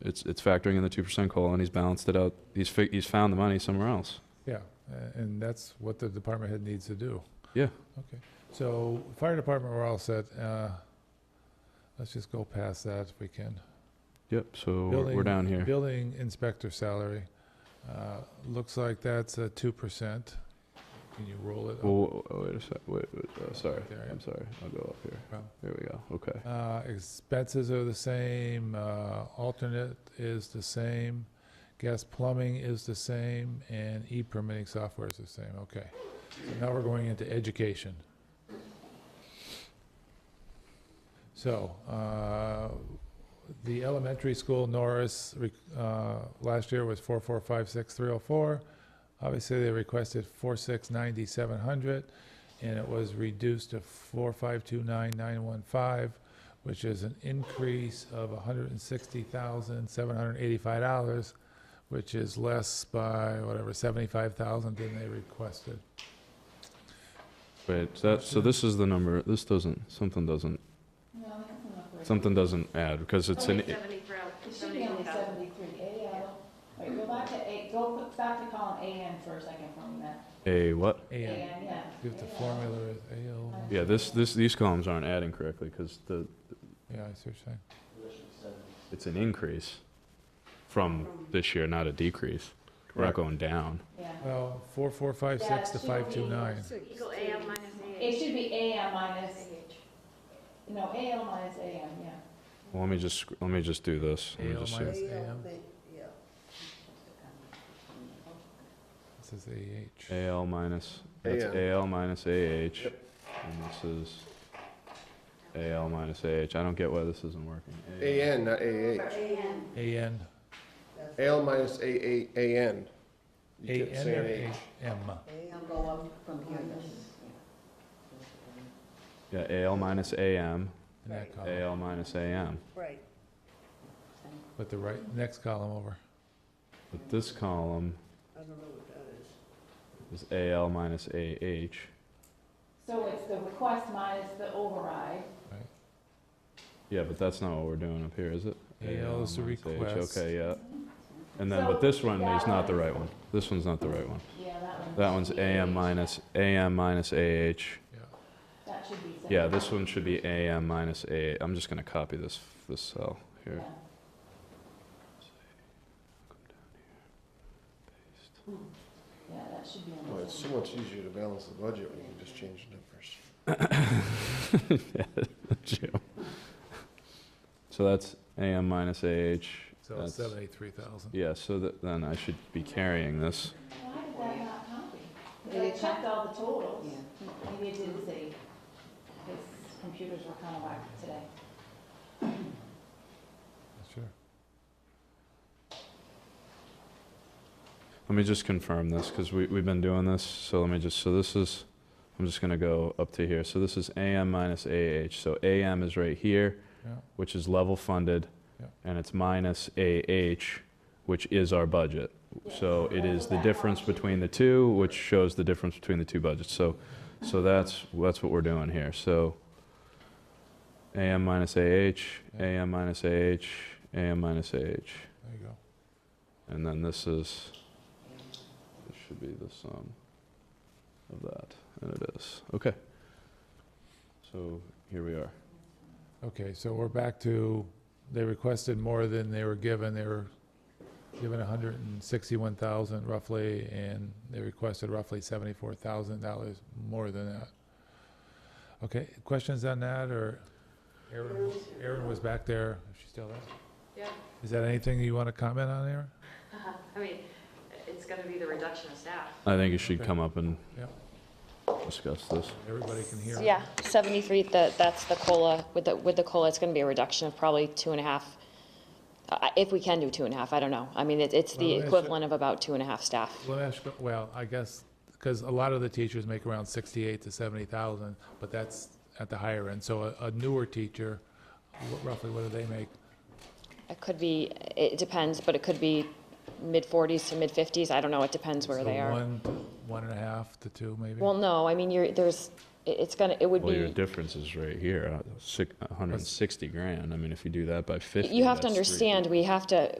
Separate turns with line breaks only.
it's it's factoring in the two percent cola, and he's balanced it out. He's fi- he's found the money somewhere else.
Yeah, a- and that's what the department head needs to do.
Yeah.
Okay, so fire department, we're all set. Uh, Let's just go past that if we can.
Yep. So we're,
Building-
we're down here.
Building inspector salary, uh, looks like that's a two percent. Can you roll it? up?
Well, oh, wait a sec. Wait, wait, uh, sorry.
There.
I'm sorry. I'll go up here.
Well.
There we go. Okay.
Uh, Expenses are the same, uh, alternate is the same, gas plumbing is the same, and e-permitting software is the same, okay. So Now we're going into education. So, uh, the elementary school, Norris, re- uh, last year was 4456304. Obviously, they requested 4690700, and it was reduced to 4529915 which is an increase of $160,785, which is less by whatever, 75,000 than they requested.
Wait. So that so this is the number. This doesn't. Something doesn't.
No, that doesn't look right.
Something doesn't add because it's an.
Only seventy for out-
It should be only
71,000.
seventy-three, AL. Wait, go back to A, go back to column AN for a second for me, Matt.
A what?
And
AN, yeah.
if the
AL.
formula is AL,
Yeah. This this these columns aren't adding correctly because the
yeah, I see what you're saying.
it's an increase from this year, not a decrease. We're not going down.
Yeah.
Well, 4456 to
Yeah, it should be-
529.
Equal AM minus
It
AH.
should be AL minus, no, AL minus AM, yeah.
Well, let me just sc- let me just do this. Let me
AL
just see.
minus AM, this is AH.
AL minus, that's AL minus AH. And this is AL minus AH. I don't get why this isn't working.
AN, not AH.
AM.
AN,
AL minus AAAN. You kept
AN
saying
or
AH.
AM?
Yeah, AL minus AM,
In that column,
AL minus AM.
Right.
but the right, next column over.
But this column
I don't know what that is.
is AL minus AH.
So it's the request minus the override.
Yeah, but that's not what we're doing up here, is it?
AL is the
minus AH.
request.
Okay, yeah. And then, but
So
this one
that
is not the
one-
right one. This one's not the right one.
Yeah, that one.
That one's
should be
AM
AH.
minus, AM minus AH.
Yeah.
That should be.
Yeah, this one should be AM minus A. I'm just gonna copy this, this cell here.
Yeah. Hmm. Yeah, that should be
Well,
on
it's so much easier to balance the budget when you can just change the numbers.
Jim. So that's AM minus AH.
So it's
That's-
783,000.
Yeah, so that, then I should be carrying this.
Why did that not copy? They checked all the totals. Maybe it didn't say, his computers were kind of whack today.
Sure.
Let me just confirm this, because we, we've been doing this, so let me just, so this is, I'm just gonna go up to here. So this is AM minus AH, so AM is right here,
Yeah.
which is level funded,
Yeah.
and it's minus AH, which is our budget. So it is the difference between the two, which shows the difference between the two budgets. So, so that's, that's what we're doing here. So AM minus AH, AM minus AH, AM minus AH.
There you go.
And then this is, it should be the sum of that, and it is. Okay. So here we are.
Okay, so we're back to, they requested more than they were given, they were given hundred and sixty-one thousand roughly, and they requested roughly seventy-four thousand dollars more than that. Okay, questions on that, or Erin, Erin was back there, is she still there?
Yeah.
Is that anything you want to comment on, Erin?
I mean, it's gonna be the reduction of staff.
I think you should
Okay.
come up and
Yeah.
discuss this.
Everybody can hear.
Yeah, 73, that, that's the COLA, with the, with the COLA, it's gonna be a reduction of probably two and a half, I- if we can do two and a half, I don't know. I mean, it- it's
Well,
the
it's a-
equivalent of about two and a half staff.
Let me ask, you- well, I guess, because a lot of the teachers make around sixty-eight to seventy thousand, but that's at the higher end, so a- a newer teacher, wh- roughly what do they make?
It could be, it depends, but it could be mid-40s to mid-50s, I don't know, it depends where
So
they are.
One, to- one and a half to two, maybe?
Well, no, I mean, you're, there's, it- it's gonna, it would
Well, your
be,
difference is right here, uh, six- 160 grand. I mean, if you do that by 50.
you have to
that's three-
understand, we have to,